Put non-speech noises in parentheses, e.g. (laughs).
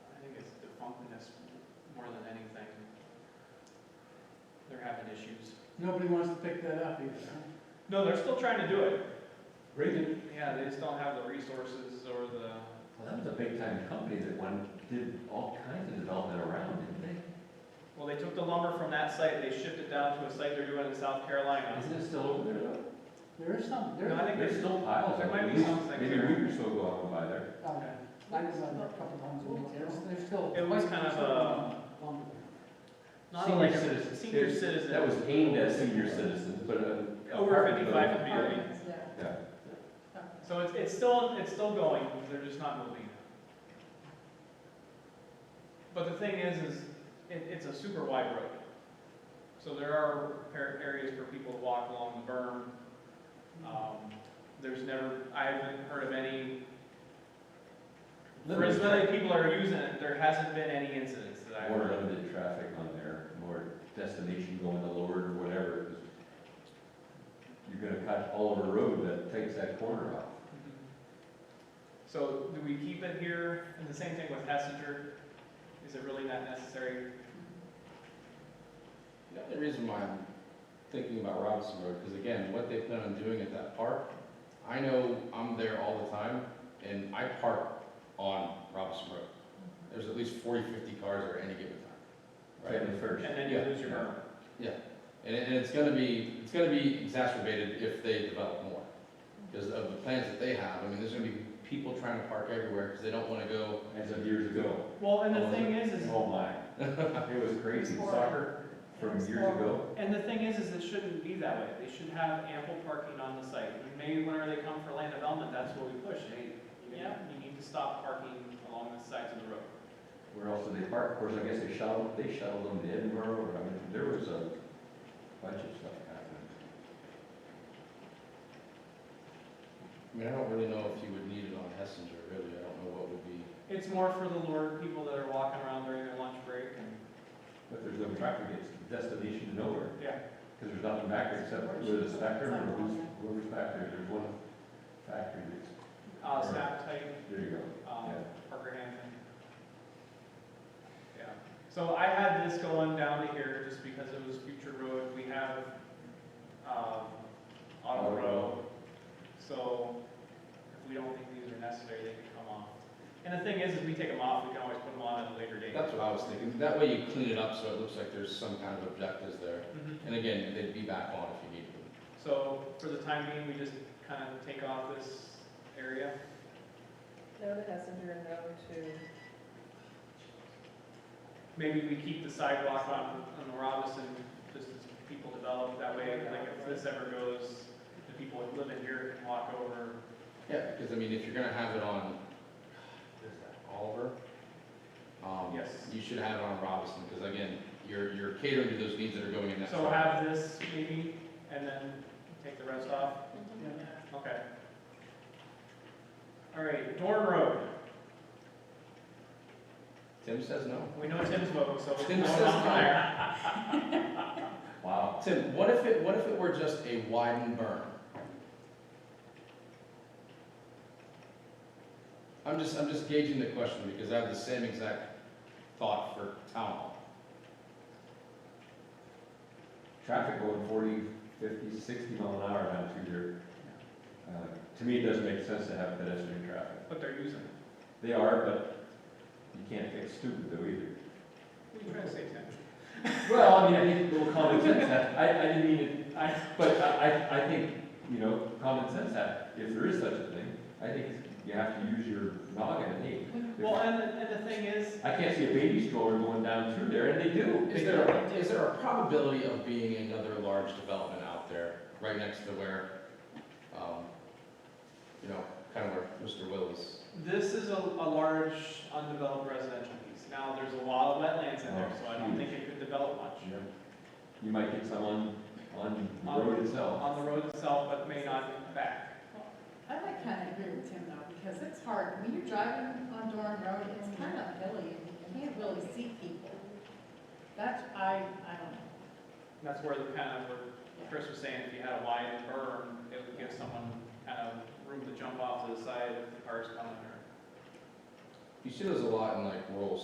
loneliness more than anything. They're having issues. Nobody wants to pick that up either, huh? No, they're still trying to do it. Bring it. Yeah, they just don't have the resources or the, Well, that was a big time company that went, did all kinds of development around, didn't they? well, they took the lumber from that site, they shipped it down to a site they're doing in South Carolina. Isn't it still over there though? There is some, there No, I is, think There's there's, still piles. there of might it. be something Maybe there. we were still going by there. um, I was on a couple times, over there. There's- there's still. uh, It was kind of uh, a- not like Senior a citizen- senior it- citizen. That was aimed at senior citizens, but. uh, Over apartment fifty-five building- would be right. Yeah. So it's, it's still, it's still going, they're just not moving. But the thing is, is it, it's a super wide road. So there are par- areas for people to walk along the berm. Um, There's never, I haven't heard of any, for as many people are using it, there hasn't been any incidents that I've More heard of. limited traffic on there, more destination going to Lord or whatever. 'cause You're gonna cut Oliver Road that takes that corner off. Mm-hmm. So do we keep it here? And the same thing with Hessinger, is it really not necessary? The only reason why I'm thinking about Robinson Road, because again, what they plan on doing at that park, I know I'm there all the time, and I park on Robinson Road. There's at least 40, 50 cars there any given time, right? Family first. And then you Yeah. lose your berm. And, it- and it's gonna be, it's gonna be exacerbated if they develop more, because of the plans that they have. I mean, there's gonna be people trying to park everywhere, because they don't wanna go, As of years ago. Well, and Oh, the is thing is, is Oh my. (laughs) It was crazy. Soccer from years ago. And the thing is, is it shouldn't be that way. They should have ample parking on the site. And Maybe whenever they come for land development, that's what we push. Hey, yeah, you need to stop parking along the sides of the road. Where else did they park? Of course, I guess they shuttled, they shuttled them to Edinburgh, or I mean, there was a bunch of stuff happening. I mean, I don't really know if you would need it on Hessinger, really. I don't know what would be. It's more for the lured people that are walking around during their lunch break and, But there's no traffic, it's destination to nowhere, yeah. because there's nothing back there except with a spectrum or who's, whoever's back there. There's one factory that's, Uh, staff type, there you go. um, Yeah. Parker Hampton. Yeah, so I had this going down to here just because it was future road, we have, um, auto Auto road. So if we don't think these are necessary, they can come off. And the thing is, is we take them off, we can always put them on at a later date. That's what I was thinking. That way you clean it up so it looks like there's some kind of objectives there. Mhm. And again, they'd be back on if you need them. So for the time being, we just kind of take off this area. No to Hessinger, no to, Maybe we keep the sidewalk on, on the Robinson, just as people develop, that way, like, if this ever goes, the people who live in here can walk over. Yeah, because I mean, if you're gonna have it on, what is that, Oliver? Um, Yes. You should have it on Robinson, because again, you're, you're catering to those needs that are going in that. So truck. have this maybe, and then take the rest off, okay. All right, Dorn Road, Tim says no. we know Tim's vote, so we'll Tim go says on no. there. Wow. Tim, what if it, what if it were just a widened berm? I'm just, I'm just gauging the question because I have the same exact thought for town hall. Traffic going 40, 50, 60 mile an hour down through there. Uh, To me, it doesn't make sense to have pedestrian traffic. But they're using it. They are, but you can't fix stupid though either. What are you trying to say, Tim? Well, I mean, I think a little common sense, ha- I, I didn't mean it, I, but I, I, I think, you know, common sense, ha- if there is such a thing, I think you have to use your noggin, and hey. well, if- and, the- and the thing is, I can't see a baby stroller going down through there, and they do. Is there, is there a probability of being another large development out there, right next to where, um, you know, kind of where Mr. Will is? This is a, a large undeveloped residential piece. Now, there's a lot of wetlands in there, so I don't think it could develop much. You know, You might get someone on the road itself. On the road itself, but may not back. I like kind of agree with Tim though, because it's hard, when you're driving on Doran Road, it's kind of hilly, and you can't really see people. That's, I, I don't know. That's where the kind of, where Chris was saying, if you had a wide berm, it would give someone kind of room to jump off to the side if the car's coming or. You see those a lot in like rural